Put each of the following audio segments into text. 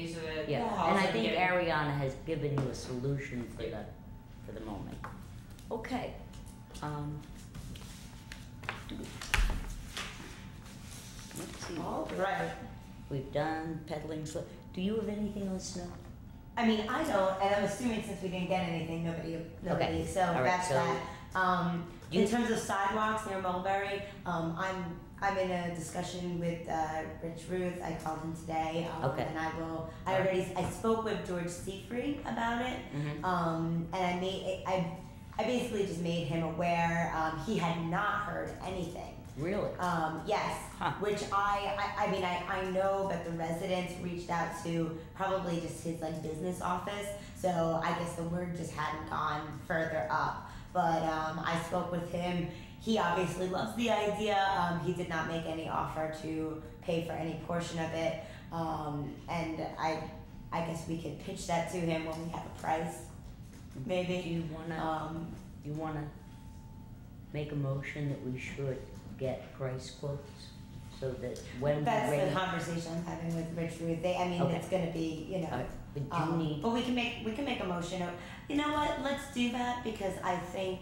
yeah. Yeah. And I Awesome, think yeah. Ariana has given you a solution for the, for the moment. Okay. Um. Let's see, All right. we've done peddling slip. Do you have anything on snow? I mean, I don't, and I'm assuming since we didn't get anything, nobody, nobody, so All right, that's so- that. Um, You- in terms of sidewalks near Mulberry, um, I'm, I'm in a discussion with, uh, Rich Ruth, I called him today, um, Okay. and I will, I already, I spoke with George Seafried about it, Mm-hmm. um, and I made, I, I basically just made him aware, um, he had not heard anything. Really? Um, yes, Huh. which I, I, I mean, I, I know that the residents reached out to probably just his like business office, so I guess the word just hadn't gone further up. But um, I spoke with him. He obviously loves the idea. Um, he did not make any offer to pay for any portion of it, um, and I, I guess we could pitch that to him when we have a price, Do maybe. you wanna, Um, you wanna make a motion that we should get price quotes? So that when we that's the raise. conversation I'm having with Rich Ruth. They, I mean, Okay. it's gonna be, you know. All right, But you Um, need, but we can make we can make a motion. of- You know what? Let's do that because I think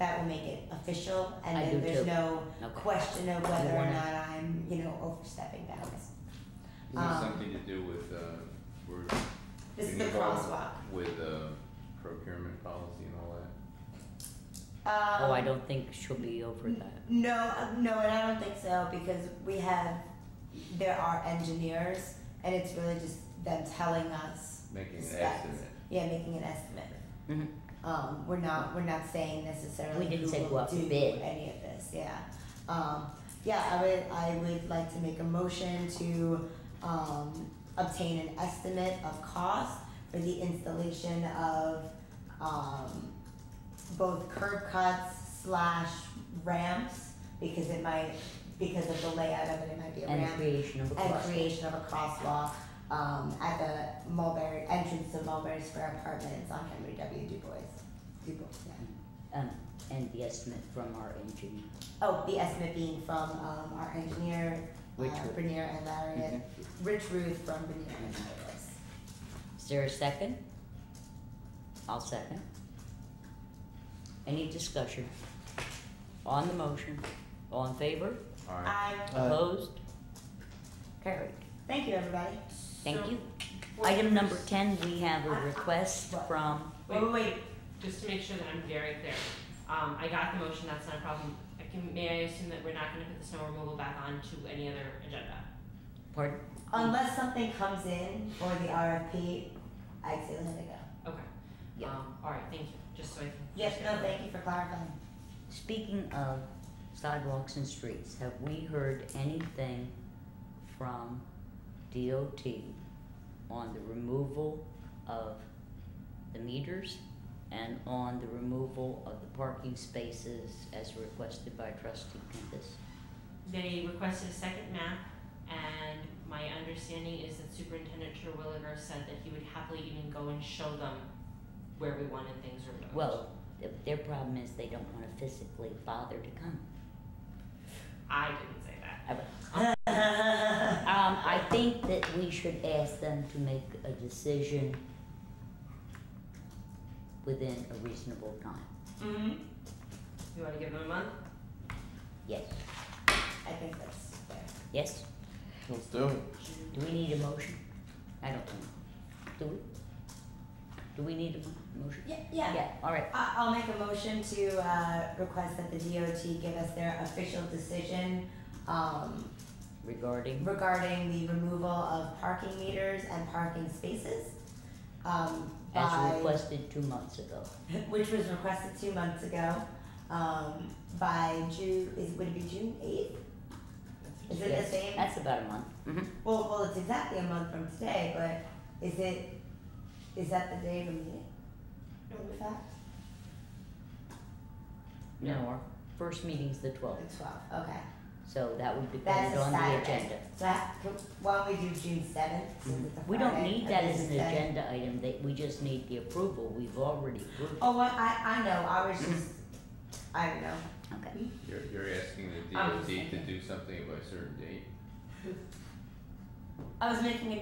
that will make it official, and I do then there's too. no okay. question of whether or wanna- not I'm you know overstepping bounds. This has Um, something to do with, uh, we're This is Can the you go- crosswalk. with, uh, procurement policy and all that. Um, Oh, I don't think she'll be over that. No, uh, no, and I don't think so because we have there are engineers, and it's really just them telling us, Making an Specs. estimate. yeah, making an estimate. Mhm. Um, we're not, we're not saying necessarily We didn't who say will go out to do bid. any of this, yeah. Um, yeah, I would, I would like to make a motion to, um, obtain an estimate of cost for the installation of, um, both curb cuts slash ramps, because it might, because of the layout of it, it might be a And ramp. creation of a And crosswalk. creation of a crosswalk, um, at the Mulberry, entrance to Mulberry Square Apartments on Henry W. Du Bois. Du Bois, yeah. Um, and the estimate from our engineer. Oh, the estimate being from um, our engineer, uh, Rich Ruth. Mm-hmm. Bernier and Larry, and Rich Ruth from Bernier and Larry's. Is there a second? I'll second. Any discussion? On the motion, all in favor? Alright, I Opposed? Carried. thank you, everybody. Thank So, you. what Item was- number ten, we have I- I- a request what? from, Wait, wait, wait. Just to make sure that I'm very clear, um, I got the motion, that's not a problem. I can, may I assume that we're not gonna put the snow removal back on to any other agenda? pardon, Unless something comes in for the RFP, I'd say let it go. Okay. Yeah. Um, alright, thank you, just so I can. Yes, no, thank you for clarifying. speaking of sidewalks and streets, have we heard anything from DOT on the removal of the meters and on the removal of the parking spaces as requested by trustee Kempis? They requested a second map, and my understanding is that Superintendent Terwilliger said that he would happily even go and show them where we wanted things removed. Well, th- their problem is they don't wanna physically bother to come. I didn't say that. Um, I think that we should ask them to make a decision within a reasonable time, Mm-hmm. You wanna give them a month? yes, I think that's fair. yes, Let's do it. do we need a motion? I don't think, do we? Do we need a mo- motion? Yeah, yeah. Yeah, alright, I- I'll make a motion to uh, request that the DOT give us their official decision um, regarding, regarding the removal of parking meters and parking spaces. Um, as by, requested two months ago, which was requested two months ago, um, by June, is, would it be June eighth? Is it yes, the same? that's about a month, mhm, Well, well, it's exactly a month from today, but is it, is that the day of the meeting? In fact, no, our first meeting's the twelfth, the twelfth, okay. so that would That's depend a on the agenda. Saturday. So that, can- why don't we do June seventh, since it's a We don't Friday, need a that as an business day? agenda item, that, we just need the approval, we've already approved. Oh, what, I, I know, I was just, I don't know. Okay. you're, you're asking the Um, DOT to do something by a certain date? I was making a